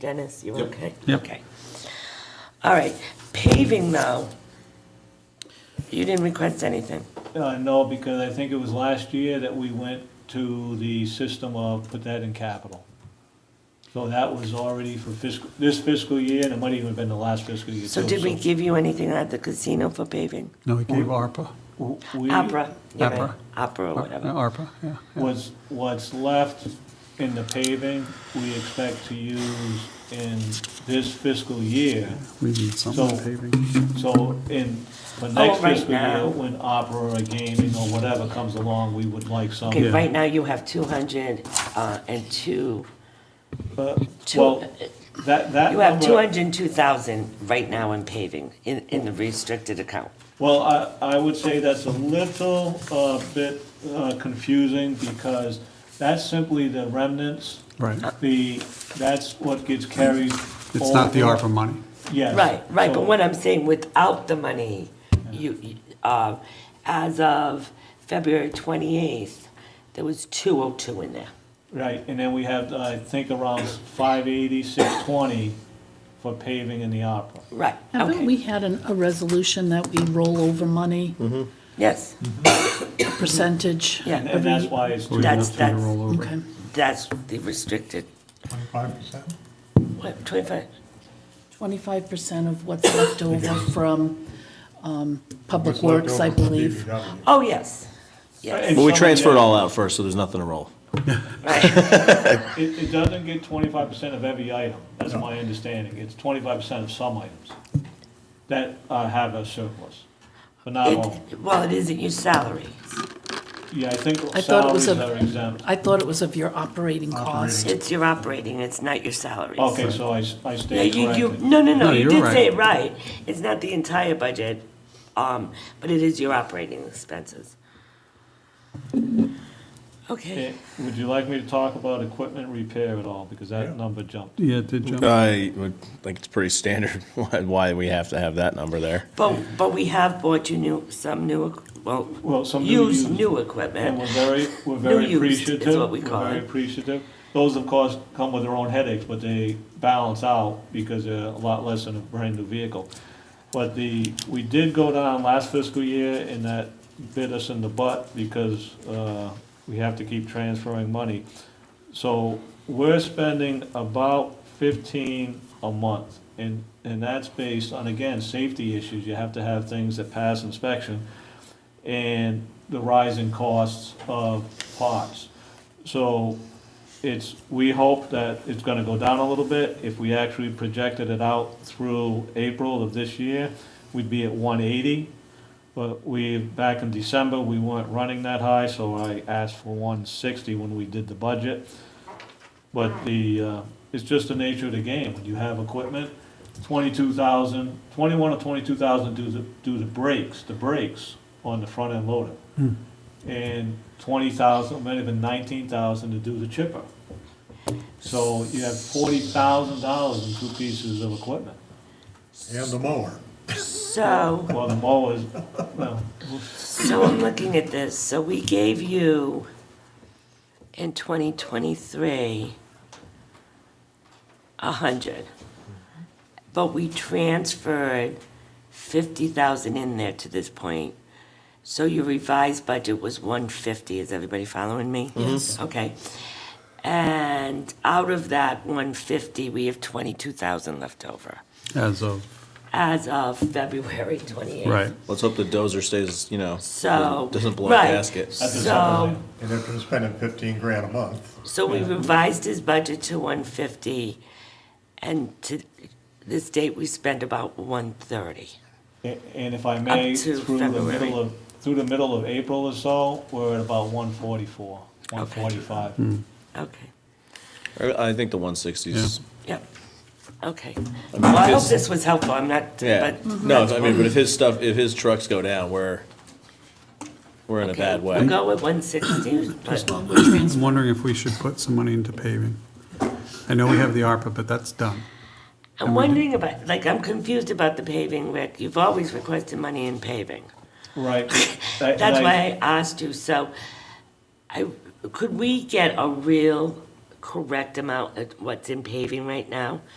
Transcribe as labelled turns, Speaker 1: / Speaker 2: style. Speaker 1: Dennis, you
Speaker 2: Yep.
Speaker 1: okay?
Speaker 3: Yep.
Speaker 1: Okay. All right, paving though. You didn't request anything.
Speaker 4: Uh, no, because I think it was last year that we went to the system of put that in capital. So that was already for fiscal, this fiscal year, and it might even have been the last fiscal year too.
Speaker 1: So did we give you anything at the casino for paving?
Speaker 3: No, we gave ARPA.
Speaker 4: w- we-
Speaker 1: Opera. you're right.
Speaker 3: Opera. Uh,
Speaker 1: Opera or
Speaker 3: Ar-
Speaker 1: whatever.
Speaker 3: ARPA, yeah.
Speaker 4: What's, what's left in the paving, we expect to use in this fiscal year.
Speaker 3: We need some
Speaker 4: So-
Speaker 3: paving.
Speaker 4: So in, for next
Speaker 1: Oh, right
Speaker 4: fiscal year,
Speaker 1: now.
Speaker 4: when opera or gaming or whatever comes along, we would like some.
Speaker 1: Okay, right now you have two hundred, uh, and two,
Speaker 4: But,
Speaker 1: Two-
Speaker 4: well, that, that.
Speaker 1: you have
Speaker 4: number-
Speaker 1: two hundred and two thousand right now in paving, in, in the restricted account.
Speaker 4: Well, I, I would say that's a little uh, bit uh, confusing because that's simply the remnants.
Speaker 3: Right.
Speaker 4: The, that's what gets carried.
Speaker 3: It's not the
Speaker 4: over.
Speaker 3: ARPA money.
Speaker 4: Yes.
Speaker 1: Right, right,
Speaker 4: So-
Speaker 1: but what I'm saying, without the money, you, you, uh, as of February twenty-eighth, there was two oh two in there.
Speaker 4: Right, and then we have, I think, around 580, 620 for paving in the opera.
Speaker 1: Right,
Speaker 5: Haven't
Speaker 1: okay,
Speaker 5: we had an- a resolution that we roll over money,
Speaker 1: yes,
Speaker 5: percentage?
Speaker 4: And-
Speaker 1: Mm-hmm. yeah,
Speaker 4: And that's why it's,
Speaker 3: We
Speaker 1: That's-
Speaker 3: have to
Speaker 1: that's-
Speaker 3: roll
Speaker 5: Okay.
Speaker 3: over.
Speaker 1: that's the restricted,
Speaker 6: Twenty-five percent?
Speaker 1: what, twenty-five?
Speaker 5: 25% of what's left over from um, Public Works, I believe.
Speaker 1: Oh, yes,
Speaker 4: And
Speaker 1: yes,
Speaker 2: But we
Speaker 4: somebody
Speaker 2: transfer it
Speaker 4: else-
Speaker 2: all out first, so there's nothing to roll.
Speaker 1: right,
Speaker 4: it, it doesn't get 25% of every item, that's my understanding. It's 25% of some items that uh, have a surplus, but not all.
Speaker 1: it, well, it isn't your salaries,
Speaker 4: Yeah, I think
Speaker 5: I thought it was
Speaker 4: salaries
Speaker 5: a-
Speaker 4: are exempt.
Speaker 5: I thought it was of your operating cost.
Speaker 1: it's your operating, it's not your salaries.
Speaker 4: Okay, so I, s- I
Speaker 1: Yeah,
Speaker 4: stayed
Speaker 1: you, you,
Speaker 4: corrected.
Speaker 1: no, no, no,
Speaker 3: No,
Speaker 1: you
Speaker 3: you're
Speaker 1: did say
Speaker 3: right.
Speaker 1: it right, it's not the entire budget, um, but it is your operating expenses. Okay.
Speaker 4: Eh, Would you like me to talk about equipment repair at all, because that number jumped?
Speaker 3: Yeah, it did jump.
Speaker 2: I would think it's pretty standard why- why we have to have that number there.
Speaker 1: But, but we have bought you new, some new, equ-
Speaker 4: Well,
Speaker 1: well,
Speaker 4: some new
Speaker 1: used
Speaker 4: used.
Speaker 1: new
Speaker 4: And we're
Speaker 1: equipment.
Speaker 4: very, we're very
Speaker 1: used is
Speaker 4: appreciative.
Speaker 1: what we call
Speaker 4: are very
Speaker 1: it.
Speaker 4: appreciative. Those, of course, come with their own headaches, but they balance out because they're a lot less than a brand-new vehicle. But the, we did go down last fiscal year, and that bit us in the butt because uh, we have to keep transferring money. So we're spending about fifteen a month, and, and that's based on, again, safety issues. You have to have things that pass inspection and the rising costs of parts. So it's, we hope that it's gonna go down a little bit. If we actually projected it out through April of this year, we'd be at one eighty. But we, back in December, we weren't running that high, so I asked for one sixty when we did the budget. But the, uh, it's just the nature of the game. When you have equipment, twenty-two thousand, twenty-one or twenty-two thousand do the, do the brakes, the brakes on the front end loader. And twenty thousand, might have been nineteen thousand to do the chipper. So you have forty thousand dollars in two pieces of equipment.
Speaker 6: And the mower.
Speaker 1: So,
Speaker 4: Well, the mowers, well,
Speaker 1: so I'm looking at this, so we gave you in twenty twenty-three a hundred. But we transferred fifty thousand in there to this point. So your revised budget was one fifty, is everybody following me? Yes. Okay. And out of that one fifty, we have twenty-two thousand left over.
Speaker 3: As of,
Speaker 1: as of February 28th.
Speaker 3: right.
Speaker 2: Let's hope the dozer stays, you know,
Speaker 1: So.
Speaker 2: doesn't blow a
Speaker 1: right.
Speaker 4: At
Speaker 2: gasket.
Speaker 4: the
Speaker 1: So,
Speaker 4: summer.
Speaker 6: And if they're spending fifteen grand a month,
Speaker 1: so we revised his budget to 150, and to this date, we spent about 130.
Speaker 4: a- and if I may,
Speaker 1: Up to
Speaker 4: through the
Speaker 1: February.
Speaker 4: middle of, through the middle of April or so, we're at about one forty-four, one forty-five.
Speaker 1: Okay,
Speaker 2: I I think the 160s.
Speaker 1: yep, okay. Well, I hope
Speaker 2: because-
Speaker 1: this was helpful, I'm not,
Speaker 2: Yeah.
Speaker 1: but.
Speaker 2: No, I mean, but if his stuff, if his trucks go down, we're, we're in a
Speaker 1: Okay,
Speaker 2: bad
Speaker 1: We'll
Speaker 2: way.
Speaker 1: go with 160, but,
Speaker 3: I'm wondering if we should put some money into paving. I know we have the ARPA, but that's done.
Speaker 1: I'm wondering about, like, I'm confused about the paving, Rick. You've always requested money in paving.
Speaker 4: Right.
Speaker 1: That's why I asked you, so I, could we get a real correct amount of what's in paving right now?